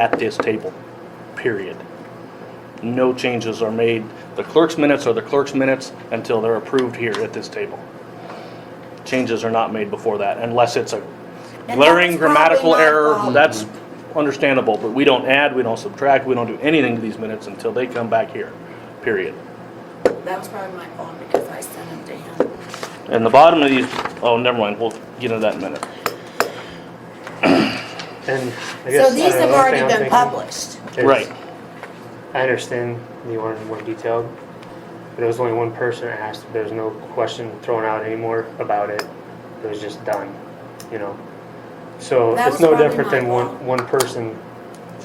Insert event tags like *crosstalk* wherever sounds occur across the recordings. at this table, period. No changes are made. The clerk's minutes are the clerk's minutes until they're approved here at this table. Changes are not made before that unless it's a that's glaring probably grammatical my error. fault. That's understandable, but we don't add, we don't subtract, we don't do anything to these minutes until they come back here, period. That was probably my fault because I sent them to him. And the bottom of these, oh, never mind, we'll get into that in a minute. And I guess So these I have don't know, one thing already I'm been thinking published. is- Right. I understand you wanted more detailed, but it was only one person that asked. There was no question thrown out anymore about it. It was just done, you know. So That it's was no probably different my than fault. one one person.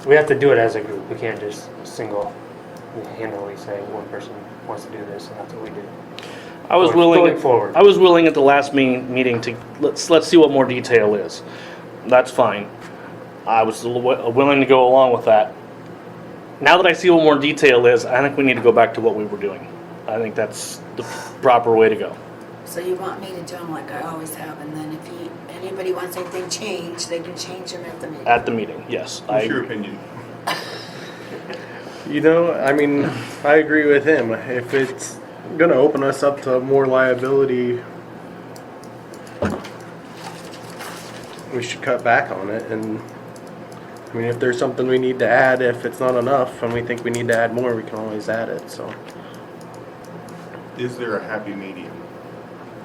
We have to do it as a group. We can't just single handedly say one person wants to do this and that's what we do. I was Going- willing. going forward. I was willing at the last me- meeting to, let's, let's see what more detail is. That's fine. I was l- wi- uh, willing to go along with that. Now that I see what more detail is, I think we need to go back to what we were doing. I think that's the proper way to go. So you want me to do them like I always have, and then if he, anybody wants anything changed, they can change them at the meeting. At the meeting, yes. I What's your opinion? You know, I mean, I agree with him. If it's going to open us up to more liability, we should cut back on it. And I mean, if there's something we need to add, if it's not enough and we think we need to add more, we can always add it. So, Is there a happy medium?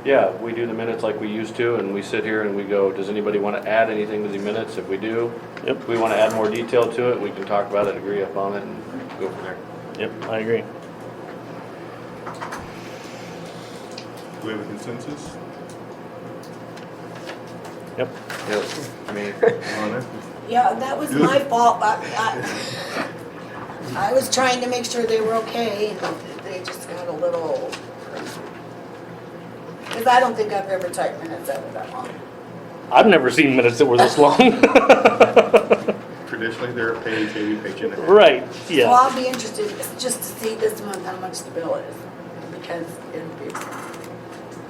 Yeah, we do the minutes like we used to, and we sit here and we go, does anybody want to add anything to the minutes? If we do, Yep. if we want to add more detail to it, we can talk about it, agree upon it, and go from there. Yep, I agree. Do we have a consensus? Yep. Yes, *laughs* I mean, on it? Yeah, that was my fault, but I, I was trying to make sure they were okay, and they just got a little. Because I don't think I've ever typed minutes that were that long. I've never seen minutes that were this long. *laughs* Traditionally, they're a page, maybe a page and a half. Right, So yeah. I'll be interested, just to see this month how much the bill is, because it'd be.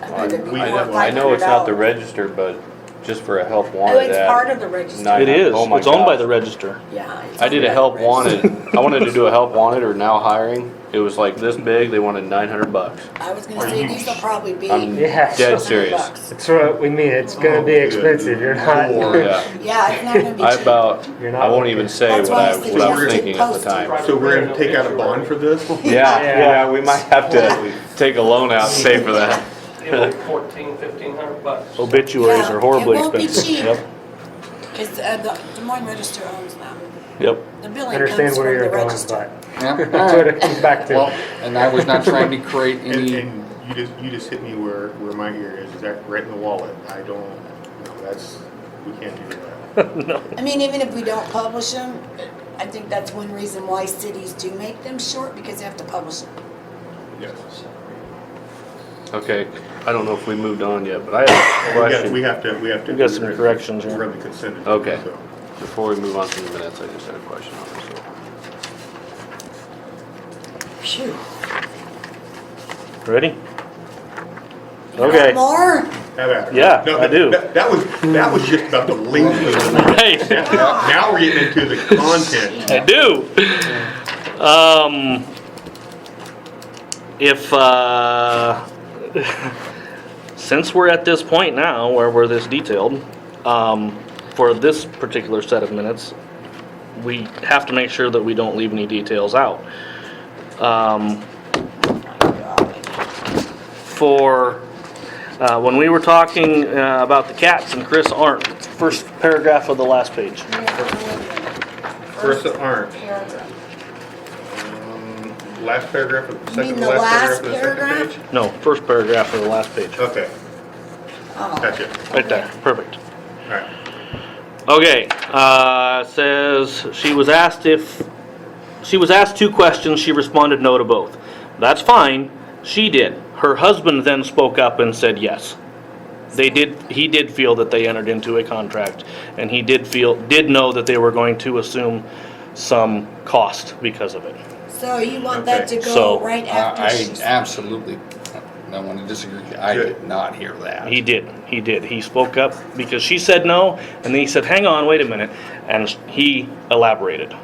I think it'd be We- more I than know- I know it's not the $500. register, but just for a help Oh, wanted it's part ad. of the Nine- register, It is. Oh my It's owned by gosh. the register. yeah. it's I did a under help the register. wanted, I wanted to do a help wanted or now hiring. It was like this big, they wanted nine *laughs* hundred bucks. I was Are gonna say, you these will probably be. I'm Yeah. dead 100 serious. bucks. It's what we mean. It's gonna be Oh, good expensive. You're not. lord. Yeah, Yeah, it's not gonna be I cheap. about, You're not I won't looking. even say That's what why I I, what I suggested was thinking at the posting. time. So we're gonna take out a bond for this? *laughs* Yeah, Yeah. yeah, we might have to take a loan out and pay for that. It was like fourteen, fifteen hundred bucks. Oh, Obituaries Yeah, are horribly it won't be expensive. cheap. Yep, Because uh, the Des Moines Register owns them. Yep. The I billing comes *laughs* understand from where the you're going, register. but *laughs* Yeah, that's all what right. it comes back to. Well, and I was not trying to create *laughs* And, any, and you just, you just hit me where, where my ear is, is that right in the wallet? I don't, no, that's, we can't do *laughs* that. I mean, even if we don't publish them, I think that's one reason why cities do make them short, because they have to publish them. Yes. Okay, I don't know if we moved on yet, but I have a We have, we question. have to, we have to. We got some corrections here. We're on the consent. agenda, Okay. so. Before we move on to the minutes, I just had a question on this. Phew. Ready? You want Okay. More? Have at it. Yeah, No, I do. That that was, that was just about the length *laughs* of the, Hey, now now we're getting into the content. I do. Um, if, uh, *laughs* since we're at this point now where we're this detailed, um, for this particular set of minutes, we have to make sure that we don't leave any details out. Um, for, uh, when we were talking, uh, about the cats and Chris Arndt, first paragraph of the last page. First aren't. Paragraph. Um, Last paragraph, of- second mean to the last last paragraph of the second page? No, first paragraph of the last page. Okay, Oh, gotcha, Right there, perfect. all right. Okay, uh, says, she was asked if, she was asked two questions, she responded no to both. That's fine, she did. Her husband then spoke up and said yes. They did, he did feel that they entered into a contract, and he did feel, did know that they were going to assume some cost because of it. so you want that to Okay, go so, right uh, I after I she's. absolutely, I want to disagree, I did not hear that. He did, He did. He spoke up because she said no, and then he said, hang on, wait a minute. And he elaborated.